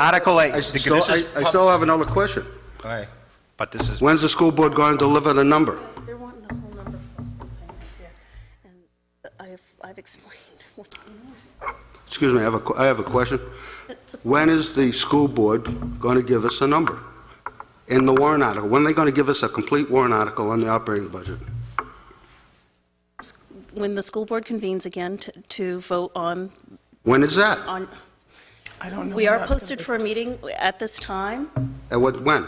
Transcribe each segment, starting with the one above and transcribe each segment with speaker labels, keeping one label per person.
Speaker 1: Article 8.
Speaker 2: I
Speaker 1: because
Speaker 2: still,
Speaker 1: this is
Speaker 2: I I
Speaker 1: pub-
Speaker 2: still have another question.
Speaker 1: All right. But this is,
Speaker 2: When's the school board going to deliver the number?
Speaker 3: They're wanting the whole number for the thing right here, and I've, I've explained what it means.
Speaker 2: Excuse me, I have a, que- I have a question.
Speaker 3: It's a-
Speaker 2: When is the school board going to give us a number in the warrant article? When are they going to give us a complete warrant article on the operating budget?
Speaker 3: When the school board convenes again to, to vote on,
Speaker 2: When is that?
Speaker 3: on,
Speaker 4: I don't know.
Speaker 3: we
Speaker 4: when
Speaker 3: are
Speaker 4: that's
Speaker 3: posted
Speaker 4: gonna
Speaker 3: for a meeting at this time.
Speaker 2: At what, when?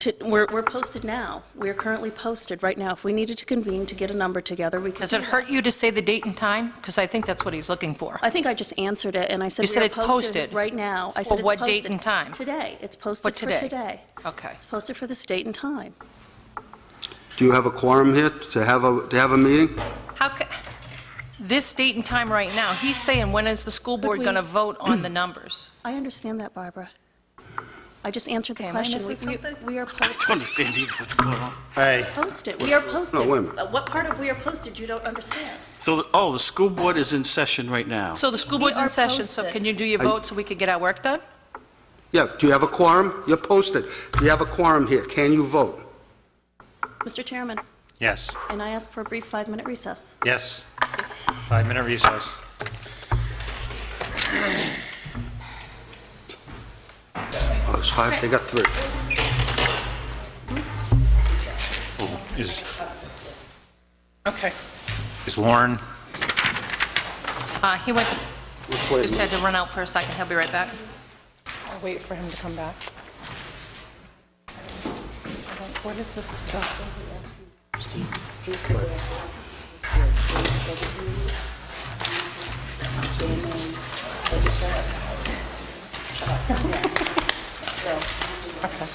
Speaker 3: To, we're, we're posted now. We're currently posted right now. If we needed to convene to get a number together, we could.
Speaker 5: Does it
Speaker 3: do that.
Speaker 5: hurt you to say the date and time? Because I think that's what he's looking for.
Speaker 3: I think I just answered it, and I said.
Speaker 5: You
Speaker 3: we
Speaker 5: said
Speaker 3: are
Speaker 5: it's posted.
Speaker 3: Right now. I
Speaker 5: For
Speaker 3: said it's
Speaker 5: what date
Speaker 3: posted.
Speaker 5: and time?
Speaker 3: Today. It's
Speaker 5: For
Speaker 3: posted for
Speaker 5: today?
Speaker 3: today.
Speaker 5: Okay.
Speaker 3: It's posted for this date and time.
Speaker 2: Do you have a quorum here to have a, to have a meeting?
Speaker 5: How, ca- this date and time right now, he's saying, when is the school board
Speaker 3: we-
Speaker 5: going to vote on the numbers?
Speaker 3: I understand that, Barbara. I just answered the
Speaker 5: Okay, am I
Speaker 3: question. We-
Speaker 5: missing
Speaker 3: we-
Speaker 5: something?
Speaker 3: We are
Speaker 6: I don't
Speaker 3: posted,
Speaker 6: understand either what's going on.
Speaker 1: hey,
Speaker 3: posted, we are posted.
Speaker 2: No, wait a minute.
Speaker 3: Uh, What part of we are posted you don't understand?
Speaker 6: So, oh, the school board is in session right now.
Speaker 5: So the school
Speaker 3: We
Speaker 5: board's in
Speaker 3: are
Speaker 5: session, so
Speaker 3: posted.
Speaker 5: can you do your
Speaker 2: I-
Speaker 5: vote so we could get our work done?
Speaker 2: Yeah, do you have a quorum? You're posted. Do you have a quorum here? Can you vote?
Speaker 3: Mr. Chairman,
Speaker 1: yes,
Speaker 3: and I ask for a brief five-minute recess.
Speaker 1: yes. Five-minute recess.
Speaker 2: Oh, there's five, they got three.
Speaker 1: Is
Speaker 4: be. Okay.
Speaker 1: is Lauren,
Speaker 5: Uh, He went,
Speaker 2: Let's wait a
Speaker 5: just had
Speaker 2: minute.
Speaker 5: to run out for a second, he'll be right back.
Speaker 4: I'll wait for him to come back. I don't- What is this stuff?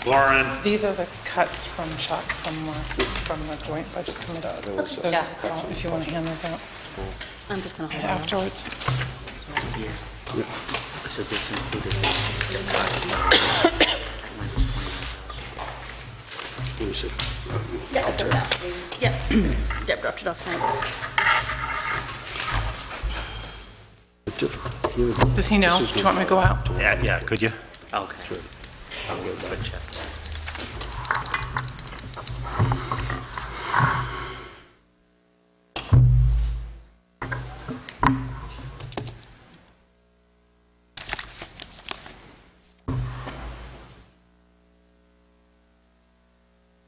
Speaker 1: Lauren,
Speaker 4: These are the cuts from Chuck from last, from the joint budget committee. Those are the cuts, If you want to hand those out
Speaker 3: I'm just going to hold on.
Speaker 4: afterwards.
Speaker 6: So this included.
Speaker 2: Let me see.
Speaker 3: Yeah, Deb dropped it off, thanks.
Speaker 2: Different. Here we go.
Speaker 4: Does he know? Do you want me to go out?
Speaker 1: yeah, yeah, could you?
Speaker 6: Okay. I'll go back.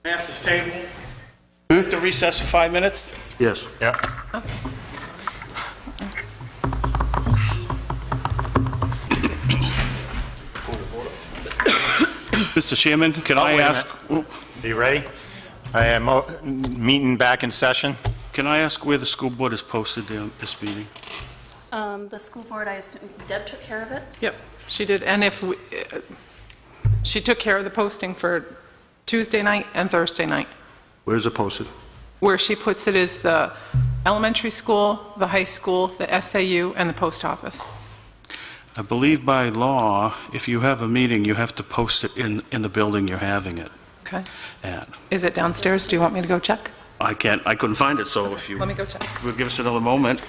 Speaker 6: Ask this table to recess for five minutes?
Speaker 2: Yes.
Speaker 1: Yeah.
Speaker 6: Mr. Chairman, can I
Speaker 7: wait a
Speaker 6: ask,
Speaker 7: Are you ready? I am, o- meeting back in session.
Speaker 6: can I ask where the school board is posted in this meeting?
Speaker 3: Um, The school board, I assume, Deb took care of it?
Speaker 4: Yep, she did, and if, we- uh, she took care of the posting for Tuesday night and Thursday night.
Speaker 2: Where's it posted?
Speaker 4: Where she puts it is the elementary school, the high school, the SAU, and the post office.
Speaker 6: I believe by law, if you have a meeting, you have to post it in, in the building you're having it
Speaker 4: Okay.
Speaker 6: at.
Speaker 4: Is it downstairs? Do you want me to go check?
Speaker 6: I can't, I couldn't find it, so if you
Speaker 4: Let me go check.
Speaker 6: would give us another moment.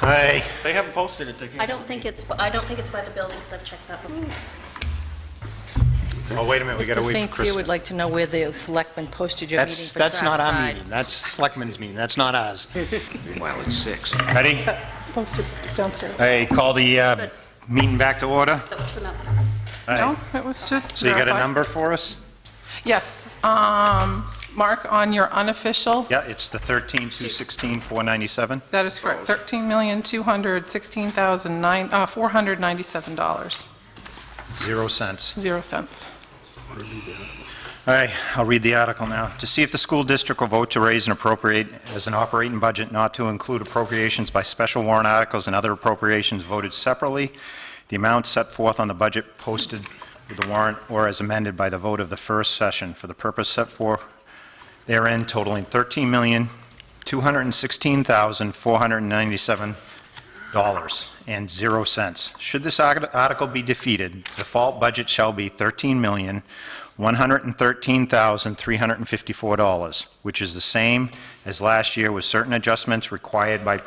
Speaker 7: Hi.
Speaker 6: They haven't posted it, they can't.
Speaker 3: I don't think it's, I don't think it's by the building, because I've checked that before.
Speaker 7: Oh, wait a minute, we
Speaker 5: Mr.
Speaker 7: gotta wait
Speaker 5: St.
Speaker 7: for
Speaker 5: Cyr
Speaker 7: Chris.
Speaker 5: would like to know where the selectmen posted your meeting
Speaker 7: That's,
Speaker 5: for
Speaker 7: that's not our
Speaker 5: outside.
Speaker 7: meeting, that's Selectmen's meeting, that's not ours.
Speaker 2: Meanwhile, it's six.
Speaker 7: Ready?
Speaker 4: It's posted, it's downstairs.
Speaker 7: I call the uh, meeting back to order.
Speaker 3: That was for nothing.
Speaker 7: Aye.
Speaker 4: No, it was just.
Speaker 7: So you got a
Speaker 4: verified.
Speaker 7: number for us?
Speaker 4: Yes. Um, Mark, on your unofficial,
Speaker 7: Yeah, it's the 13, 216, 497.
Speaker 4: that is correct, uh, $13,216,497,
Speaker 7: Zero cents.
Speaker 4: zero cents.
Speaker 7: All right, I'll read the article now. To see if the school district will vote to raise and appropriate as an operating budget not to include appropriations by special warrant articles and other appropriations voted separately, the amount set forth on the budget posted with the warrant or as amended by the vote of the first session for the purpose set forth therein totaling $13,216,497 and zero cents. Should this arti- article be defeated, the default budget shall be 13 million $113,354, which is the same as last year with certain adjustments required by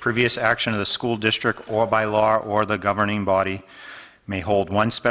Speaker 7: previous action of the school district or by law or the governing body may hold one special